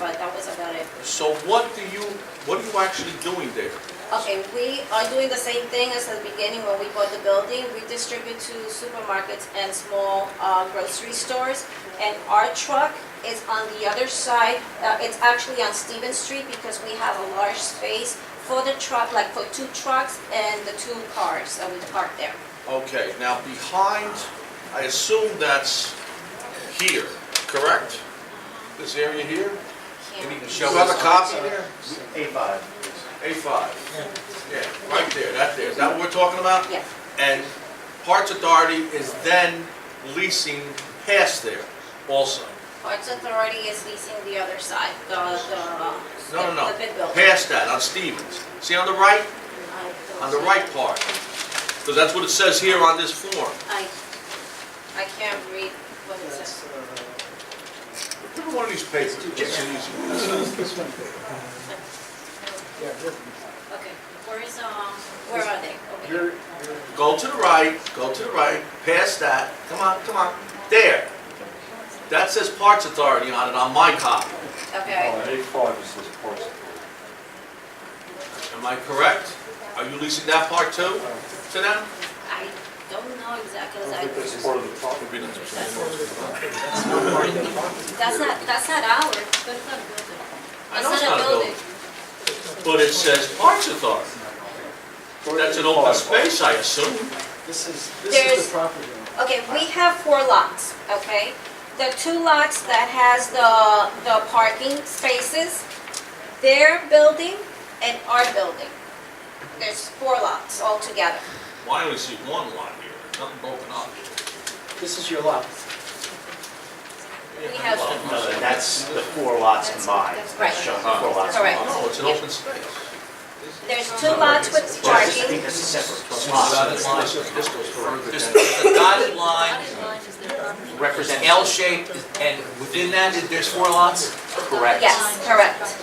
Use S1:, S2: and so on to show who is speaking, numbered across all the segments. S1: but that was about it.
S2: So what do you, what are you actually doing there?
S1: Okay, we are doing the same thing as at the beginning when we bought the building. We distribute to supermarkets and small uh, grocery stores. And our truck is on the other side, uh, it's actually on Stevens Street because we have a large space for the truck, like for two trucks and the two cars that we park there.
S2: Okay, now behind, I assume that's here, correct? This area here?
S1: Here.
S2: Can you show us? a copy there?
S3: A5.
S2: A5. Yeah, right there, that there, is that what we're talking about?
S1: Yeah,
S2: And Parts Authority is then leasing past there also.
S1: Parks Authority is leasing the other side, the, the.
S2: No, no, no,
S1: The big building.
S2: past that, on Stevens. See on the right, on the right part, because that's what it says here on this form.
S1: I, I can't read what it says.
S3: That's, uh,
S2: Give me one of these papers. It's an easy one.
S4: This one, yeah, this one.
S1: Okay, where is, um, where are they? Over here.
S3: You're, you're,
S2: Go to the right, go to the right, past that, come on, come on, there. That says Parts Authority on it, on my copy.
S1: Okay,
S3: A5 is this parcel.
S2: Am I correct? Are you leasing that part too, to them?
S1: I don't know exactly,
S3: I think
S1: I-
S3: that's part of the property.
S1: that's not, that's not ours, that's not a building.
S2: I know it's not a building, but it says Parts Authority. That's an open space, I assume.
S4: This is, this
S1: There's-
S4: is the property owner.
S1: Okay, we have four lots, okay? The two lots that has the, the parking spaces, their building and our building. There's four lots altogether.
S2: Why do we see one lot here, nothing broken up?
S4: This is your lot.
S1: We have-
S3: Oh, No, and that's the four lots combined.
S1: Right.
S3: That's showing the four lots
S1: Correct.
S3: combined.
S2: oh, No, it's an open space.
S1: There's two lots with
S3: Well, I think
S1: parking.
S3: this is separate.
S2: Dotted
S3: lots.
S2: line, This goes further
S5: There's
S2: than.
S5: a dotted line, it's an
S3: Represents.
S5: L shape, and within that, there's four lots?
S3: Correct.
S1: Yes, correct.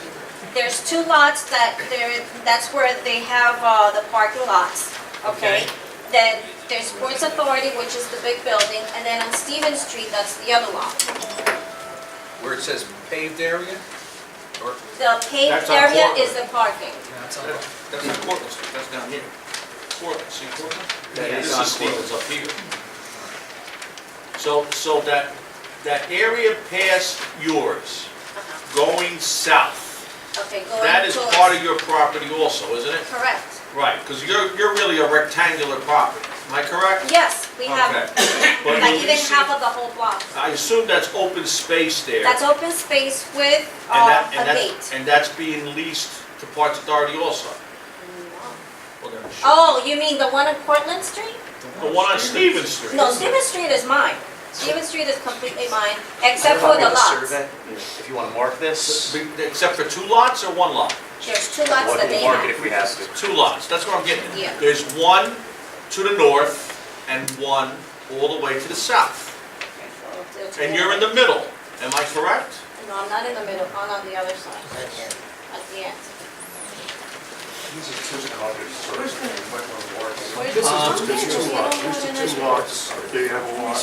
S1: There's two lots that there, that's where they have uh, the parking lots, okay?
S5: Okay.
S1: Then there's Sports Authority, which is the big building, and then on Stevens Street, that's the other lot.
S5: Where it says paved area? Or,
S1: The paved
S2: That's on
S1: area
S2: Portland.
S1: is the parking.
S5: that's on-
S2: That's not Cortlandt Street, that's down here. Cortlandt, see Cortlandt?
S3: Yeah,
S2: This
S3: it's
S2: is
S3: on
S2: Stevens up here. So, so that, that area past yours,
S1: Uh-huh.
S2: going south,
S1: Okay, going
S2: that is
S1: towards-
S2: part of your property also, isn't it?
S1: Correct.
S2: Right, because you're, you're really a rectangular property, am I correct?
S1: Yes, we have,
S2: Okay. But
S1: like
S2: you
S1: even
S2: see-
S1: half of the whole block.
S2: I assume that's open space there.
S1: That's open space with
S2: and
S1: uh,
S2: that-
S1: a
S2: and that's-
S1: gate.
S2: And that's being leased to Parks Authority also. Well, they're-
S1: Oh, you mean the one on Portland Street?
S2: The one on Stevens Street.
S1: No, Stevens Street is mine. Stevens Street is completely mine, except for the lots.
S3: Survey, If you want to mark this,
S2: Be- Except for two lots or one lot?
S1: There's two lots that they
S3: we'll mark it
S1: have.
S3: if we have to.
S2: Two lots, that's what I'm getting at.
S1: Yeah.
S2: There's one to the north and one all the way to the south. And you're in the middle, am I correct?
S1: No, I'm not in the middle, I'm on the other side. At the end. Where's the-
S5: Uh,
S1: Okay, just get
S6: Two
S1: on
S6: lots,
S1: the other
S6: these are two
S1: side.
S6: lots, they have a lot,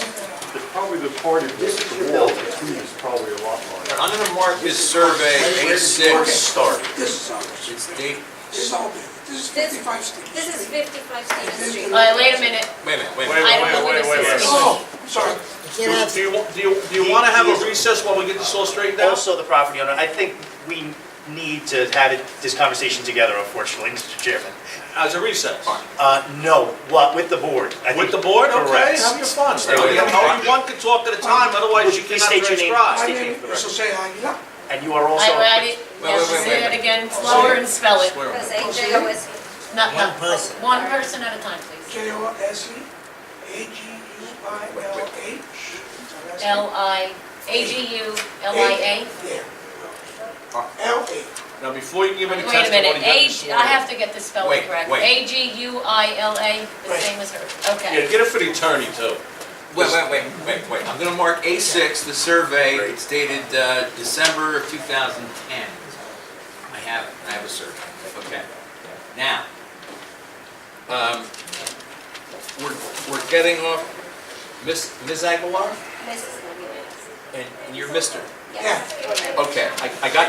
S6: It's probably the party,
S4: This is your
S6: the wall
S4: building.
S6: between is probably a lot line.
S5: I'm gonna mark this survey
S4: Where does it
S3: Mark it
S5: A6,
S3: start.
S7: This is ours.
S5: it's date,
S7: This is all big. This is
S1: This-
S7: fifty-five Stevens
S1: This is
S7: Street.
S1: fifty-five Stevens Street.
S7: All right,
S1: wait a minute.
S5: wait a minute, wait a
S2: Wait,
S5: minute.
S2: wait, wait, wait, wait, wait.
S7: Oh, sorry.
S2: Do you, do you, do you- do you want to have
S3: He-
S2: a
S3: he is-
S2: recess while we get this all straightened out?
S3: Also, the property owner, I think we need to have it- this conversation together, unfortunately, Mr. Chairman.
S2: As a recess?
S3: Uh, no, what, with the board? I
S2: With
S3: think-
S2: the board, okay,
S3: Correct.
S2: have your fun.
S3: Stay with
S2: Only
S3: it.
S2: only one can talk at a time, otherwise you
S3: Please
S2: cannot
S3: state your
S2: transcribe.
S3: name.
S7: My
S3: Stay
S7: name
S3: tuned.
S7: is Jose Aguilar.
S3: And you are also.
S8: I, I didn't,
S5: Wait, wait, wait,
S8: say
S5: wait,
S8: that
S5: wait.
S8: again, slower and spell it.
S2: Swear on
S1: Because
S2: it.
S1: AJ was,
S8: Not, not, one person at a time, please.
S7: J O S E A G U I L H. Is that right?
S8: L I, A G U L I
S7: Yeah. L A.
S2: Now, before you give
S8: A?
S2: any
S8: Wait a
S2: testimony,
S8: minute,
S2: you
S8: A,
S2: have to swear
S8: I
S2: in.
S8: have to get this spelling
S5: Wait,
S8: correct.
S5: wait.
S8: A G U I L A, the
S7: Right.
S8: same as her,
S2: Yeah,
S8: okay.
S2: get it for the attorney too.
S5: Wait, wait, wait, wait, wait, I'm gonna mark A6, the survey, it's dated uh, December of 2010. I have, it. I have a survey, okay. Now, um, we're, we're getting off, Miss Ms. Aguilar,
S1: Mrs. Ramirez.
S5: and and you're Mr.
S1: Yes.
S5: Okay, I I got